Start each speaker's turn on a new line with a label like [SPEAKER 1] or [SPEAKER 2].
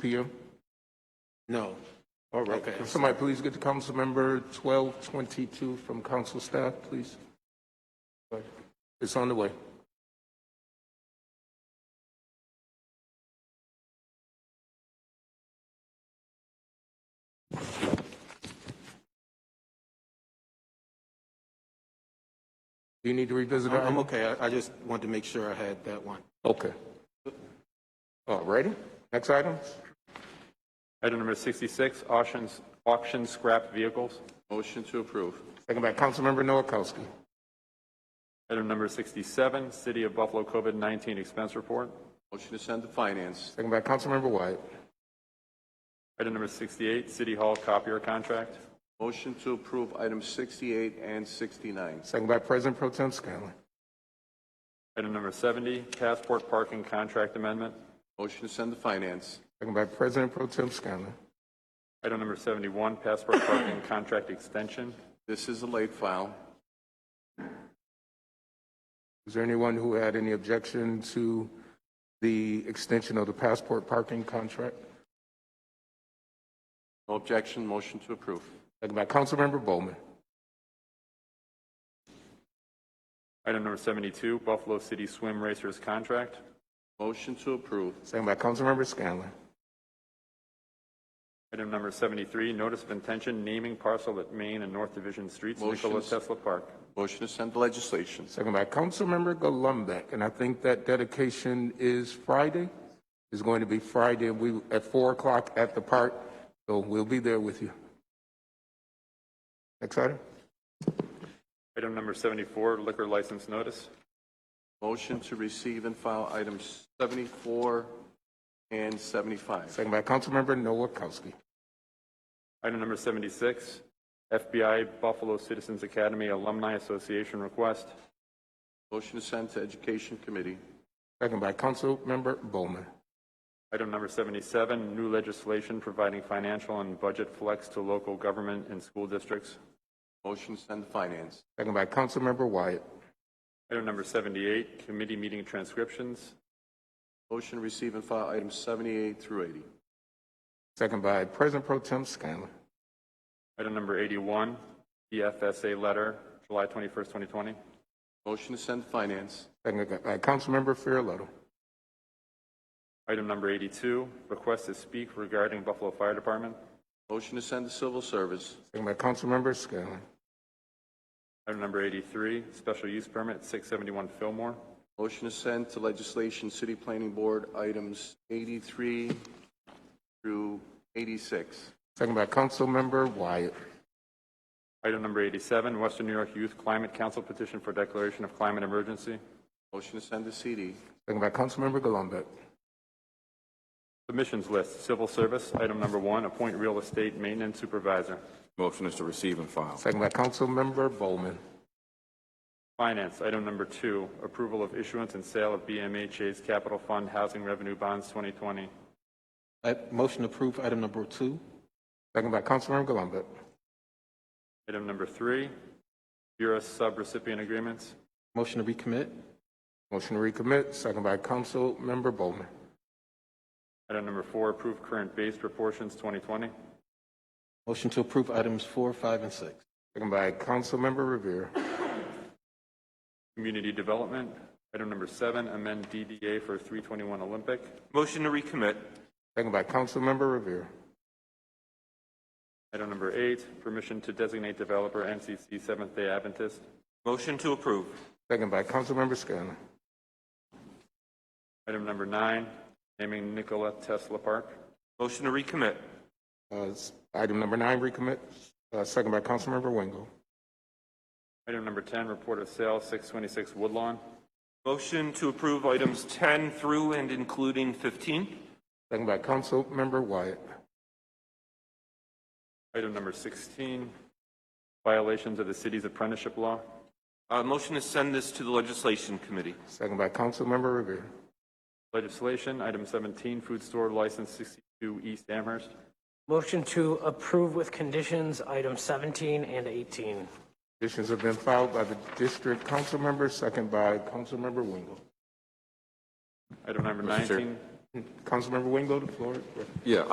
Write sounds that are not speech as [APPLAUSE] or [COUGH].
[SPEAKER 1] PM?
[SPEAKER 2] No. All right.
[SPEAKER 1] Can somebody please get the council member 1222 from council staff, please? It's on the way. Do you need to revisit that?
[SPEAKER 2] I'm okay. I- I just wanted to make sure I had that one.
[SPEAKER 1] Okay. All righty, next item?
[SPEAKER 3] Item number 66, auctions, auction scrap vehicles.
[SPEAKER 4] Motion to approve.
[SPEAKER 1] Second by Councilmember Noakowski.
[SPEAKER 3] Item number 67, City of Buffalo COVID-19 expense report.
[SPEAKER 4] Motion to send to finance.
[SPEAKER 1] Second by Councilmember Wyatt.
[SPEAKER 3] Item number 68, City Hall copier contract.
[SPEAKER 4] Motion to approve items 68 and 69.
[SPEAKER 1] Second by President Pro Tem Scanlon.
[SPEAKER 3] Item number 70, passport parking contract amendment.
[SPEAKER 4] Motion to send to finance.
[SPEAKER 1] Second by President Pro Tem Scanlon.
[SPEAKER 3] Item number 71, passport parking [COUGHS] contract extension.
[SPEAKER 4] This is a late file.
[SPEAKER 1] Is there anyone who had any objection to the extension of the passport parking contract?
[SPEAKER 4] No objection, motion to approve.
[SPEAKER 1] Second by Councilmember Bowman.
[SPEAKER 3] Item number 72, Buffalo City swim racers contract.
[SPEAKER 4] Motion to approve.
[SPEAKER 1] Second by Councilmember Scanlon.
[SPEAKER 3] Item number 73, notice of intention naming parcel at Main and North Division Streets, Nikola
[SPEAKER 4] Motions.
[SPEAKER 3] Tesla Park.
[SPEAKER 4] Motion to send to legislation.
[SPEAKER 1] Second by Councilmember Gollumbeck. And I think that dedication is Friday. It's going to be Friday and we, at 4 o'clock at the park. So we'll be there with you. Next item?
[SPEAKER 3] Item number 74, liquor license notice.
[SPEAKER 4] Motion to receive and file items 74 and 75.
[SPEAKER 1] Second by Councilmember Noakowski.
[SPEAKER 3] Item number 76, FBI Buffalo Citizens Academy Alumni Association request.
[SPEAKER 4] Motion to send to education committee.
[SPEAKER 1] Second by Councilmember Bowman.
[SPEAKER 3] Item number 77, new legislation providing financial and budget flex to local government and school districts.
[SPEAKER 4] Motion to send to finance.
[SPEAKER 1] Second by Councilmember Wyatt.
[SPEAKER 3] Item number 78, committee meeting transcriptions.
[SPEAKER 4] Motion to receive and file items 78 through 80.
[SPEAKER 1] Second by President Pro Tem Scanlon.
[SPEAKER 3] Item number E 81, EFSA letter, July 21st, 2020.
[SPEAKER 4] Motion to send to finance.
[SPEAKER 1] Second by Councilmember Farrelletto.
[SPEAKER 3] Item number 82, request to speak regarding Buffalo Fire Department.
[SPEAKER 4] Motion to send to civil service.
[SPEAKER 1] Second by Councilmember Scanlon.
[SPEAKER 3] Item number 83, special use permit, 671 Fillmore.
[SPEAKER 4] Motion to send to legislation, city planning board, items 83 through 86.
[SPEAKER 1] Second by Councilmember Wyatt.
[SPEAKER 3] Item number 87, Western New York Youth Climate Council petition for declaration of climate emergency.
[SPEAKER 4] Motion to send to CD.
[SPEAKER 1] Second by Councilmember Gollumbeck.
[SPEAKER 3] Submissions list, civil service, item number one, appoint real estate maintenance supervisor.
[SPEAKER 5] Motion is to receive and file.
[SPEAKER 1] Second by Councilmember Bowman.
[SPEAKER 3] Finance, item number two, approval of issuance and sale of BMHA's Capital Fund Housing Revenue Bonds 2020.
[SPEAKER 2] I- Motion to approve item number two.
[SPEAKER 1] Second by Councilmember Gollumbeck.
[SPEAKER 3] Item number three, Bureau subrecipient agreements.
[SPEAKER 2] Motion to recommit.
[SPEAKER 1] Motion to recommit, second by Councilmember Bowman.
[SPEAKER 3] Item number four, approve current base proportions 2020.
[SPEAKER 2] Motion to approve items four, five, and six.
[SPEAKER 1] Second by Councilmember Revere.
[SPEAKER 3] Community development, item number seven, amend DDA for 321 Olympic.
[SPEAKER 5] Motion to recommit.
[SPEAKER 1] Second by Councilmember Revere.
[SPEAKER 3] Item number eight, permission to designate developer NCC Seventh Day Adventist.
[SPEAKER 5] Motion to approve.
[SPEAKER 1] Second by Councilmember Scanlon.
[SPEAKER 3] Item number nine, naming Nikola Tesla Park.
[SPEAKER 5] Motion to recommit.
[SPEAKER 1] Uh, s- Item number nine, recommit, uh, second by Councilmember Wingo.
[SPEAKER 3] Item number 10, report of sale, 626 Woodlawn.
[SPEAKER 5] Motion to approve items 10 through and including 15.
[SPEAKER 1] Second by Councilmember Wyatt.
[SPEAKER 3] Item number 16, violations of the city's apprenticeship law.
[SPEAKER 5] Uh, Motion to send this to the Legislation Committee.
[SPEAKER 1] Second by Councilmember Revere.
[SPEAKER 3] Legislation, item 17, food store license 62 East Amherst.
[SPEAKER 6] Motion to approve with conditions, items 17 and 18.
[SPEAKER 1] Petitions have been filed by the district council member, second by Councilmember Wingo.
[SPEAKER 3] Item number
[SPEAKER 5] Mr. Chair.
[SPEAKER 3] 19,
[SPEAKER 1] Councilmember Wingo, the floor. is yours.
[SPEAKER 7] Yeah,